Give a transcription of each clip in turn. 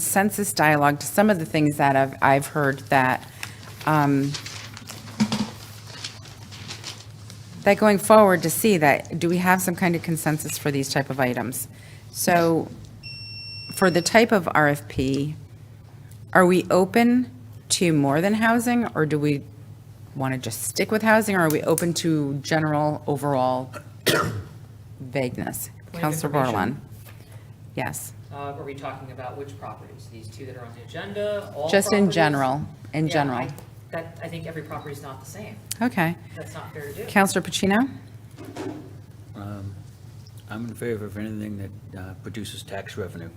consensus dialogue to some of the things that I've, I've heard that, um, that going forward to see that, do we have some kind of consensus for these type of items? So for the type of RFP, are we open to more than housing, or do we want to just stick with housing, or are we open to general overall vagueness? of Counselor information. Bordelon? Yes, Uh, Are we talking about which properties? These two that are on the agenda, all just in properties? general, in Yeah, general. I- That, I think every property is not the same. Okay. That's not fair to do. Counselor Pacino? Um, I'm in favor of anything that uh, produces tax revenue.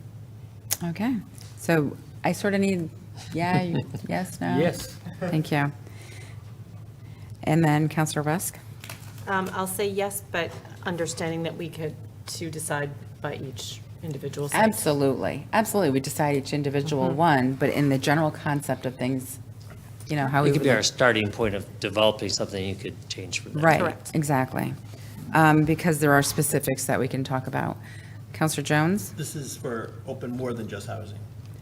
Okay, so I sort of need, yeah, you- yes, no? Yes. Thank you. And then Counselor Rusk? Um, I'll say yes, but understanding that we could to decide by each individual site. Absolutely, absolutely. We decide each individual one, but in the general concept of things, you know, how we It could would. be our look- starting point of developing something you could change from there. Right, Correct. exactly. Um, Because there are specifics that we can talk about. Counselor Jones? This is for open more than just housing.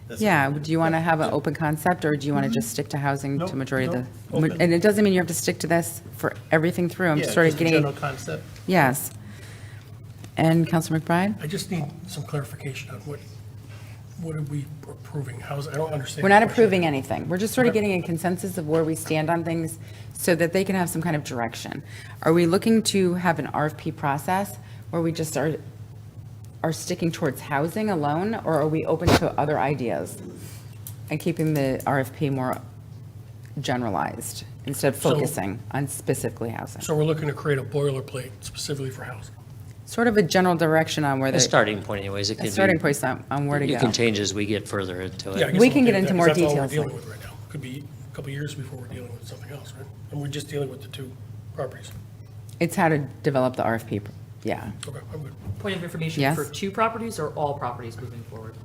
That's- Mm-hmm. Yeah, do you want to have an open concept, or do you want to just stick to housing Nope, to majority of nope, the? open. And it doesn't mean you have to stick to this for everything through. I'm Yeah, sort of just a getting, General concept. yes. And Counselor McBride? I just need some clarification on what, what are we approving? How's, I don't understand. We're not the question. approving anything. We're just sort of Okay. getting a consensus of where we stand on things so that they can have some kind of direction. Are we looking to have an RFP process where we just are, are sticking towards housing alone? Or are we open to other ideas and keeping the RFP more generalized instead of So- focusing on specifically housing? So we're looking to create a boilerplate specifically for housing. Sort of a general direction on where A the, starting point anyways, it a could be. starting point on on where to go. You can change as we get further into Yeah, I it. guess We I'm can get into okay with that, 'cause more That's all we're details dealing later. with right now. Could be a couple years before we're dealing with something else, right? And we're just dealing with the two properties. It's how to develop the RFP, pr- yeah. Okay, I'm good. Point of information Yes. for two properties or all properties moving forward?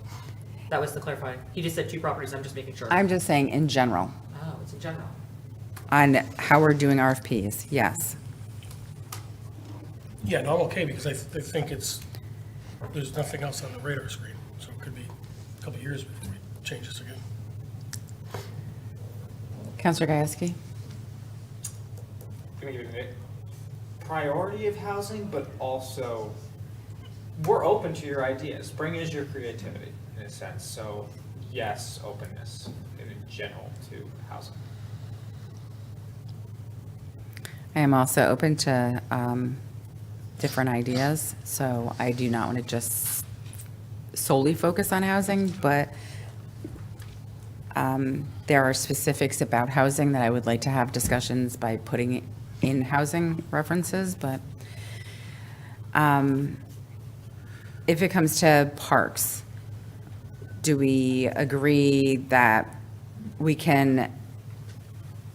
That was the clarifying. He just said two properties, I'm just making sure. I'm just saying in general. Oh, it's in general. on how we're doing RFPs, yes. Yeah, no, I'm okay because I, th- I think it's, there's nothing else on the radar screen. So it could be a couple years before we change this again. Counselor Gieske? gonna give it a priority of housing, but also we're open to your ideas. Bring is your creativity in a sense. So yes, openness in general to housing. I am also open to um, different ideas, so I do not want to just solely focus on housing, but um, there are specifics about housing that I would like to have discussions by putting in housing references, but um, if it comes to parks, do we agree that we can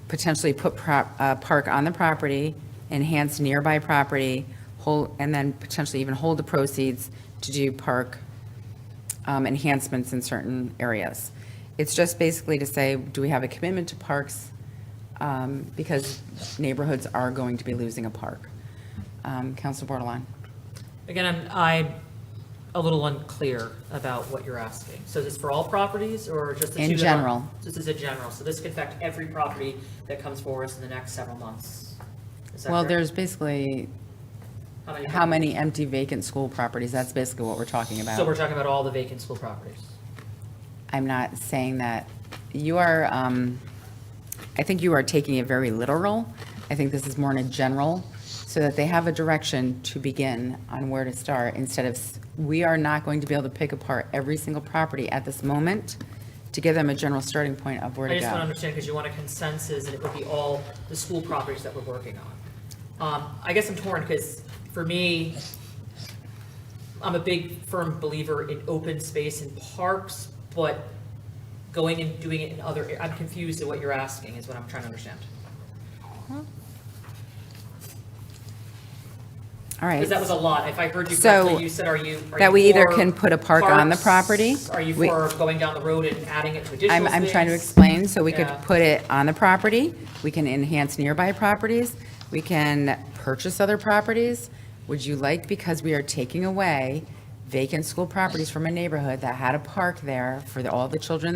potentially put prop, uh, park on the property, enhance nearby property, hold, and then potentially even hold the proceeds to do park, um, enhancements in certain areas. It's just basically to say, do we have a commitment to parks? Um, because neighborhoods are going to be losing a park. Um, Council Bordelon? Again, I'm, I'm a little unclear about what you're asking. So is this for all properties or just the two? In that are- general. This is a general, so this could affect every property that comes for us in the next several months. Is that Well, correct? there's basically, how properties? many empty vacant school properties? That's basically what we're talking about. So we're talking about all the vacant school properties. I'm not saying that, you are, um, I think you are taking it very literal. I think this is more in a general, so that they have a direction to begin on where to start, instead of, s- we are not going to be able to pick apart every single property at this moment to give them a general starting point of where I to just want to go. understand, because you want a consensus, and it would be all the school properties that we're working on. Um, I guess I'm torn, because for me, I'm a big firm believer in open space and parks, but going and doing it in other, I'm confused at what you're asking, is what I'm trying to understand. All right. Because that was a lot, if I heard you So, correctly, you said, are you, are that you we either for can put a park on the parks? property? Are you We- for going down the road and adding it to I'm, additional I'm trying to space? explain, so we could Yeah. put it on the property, we can enhance nearby properties, we can purchase other properties. Would you like, because we are taking away vacant school properties from a neighborhood that had a park there for the- all the children in the